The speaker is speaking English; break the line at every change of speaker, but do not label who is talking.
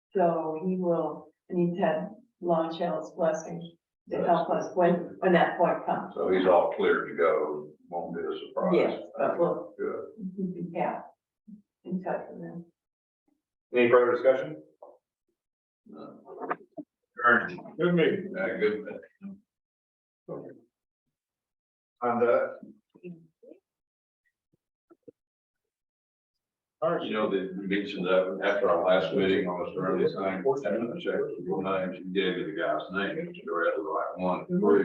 So he will need to have Long Shell's blessing to help us when, when that point comes.
So he's all clear to go, won't be a surprise.
Yes, but we'll-
Good.
Yeah. In touch with them.
Any further discussion? Ernest,
Good meeting. Yeah, good meeting.
on the,
You know, the mentioned that after our last meeting on this early thing, I checked with your names, you gave me the guy's name, you're at the right one.